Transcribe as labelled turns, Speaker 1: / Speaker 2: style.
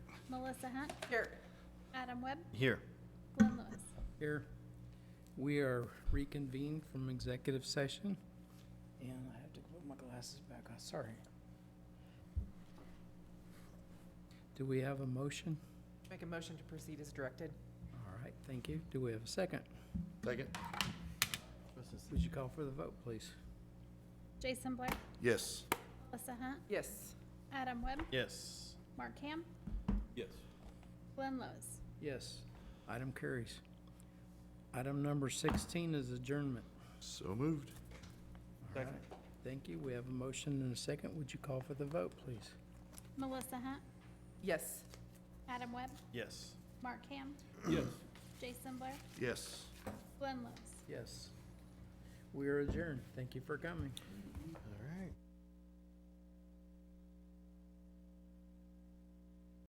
Speaker 1: Melissa Hunt,
Speaker 2: Here.
Speaker 1: Adam Webb,
Speaker 3: Here.
Speaker 1: Glenn Lewis.
Speaker 4: Here, we are reconvened from executive session. And I have to put my glasses back on, sorry. Do we have a motion?
Speaker 2: Make a motion to proceed as directed.
Speaker 4: All right, thank you. Do we have a second?
Speaker 3: Second?
Speaker 4: Would you call for the vote, please?
Speaker 1: Jason Blair,
Speaker 3: Yes.
Speaker 1: Melissa Hunt,
Speaker 2: Yes.
Speaker 1: Adam Webb,
Speaker 3: Yes.
Speaker 1: Mark Ham,
Speaker 3: Yes.
Speaker 1: Glenn Lewis.
Speaker 4: Yes, item carries. Item number sixteen is adjournment.
Speaker 3: So moved.
Speaker 4: All right, Thank you. We have a motion and a second. Would you call for the vote, please?
Speaker 1: Melissa Hunt,
Speaker 2: Yes.
Speaker 1: Adam Webb,
Speaker 3: Yes.
Speaker 1: Mark Ham,
Speaker 3: Yes.
Speaker 1: Jason Blair,
Speaker 3: Yes.
Speaker 1: Glenn Lewis.
Speaker 4: Yes. We are adjourned. Thank you for coming.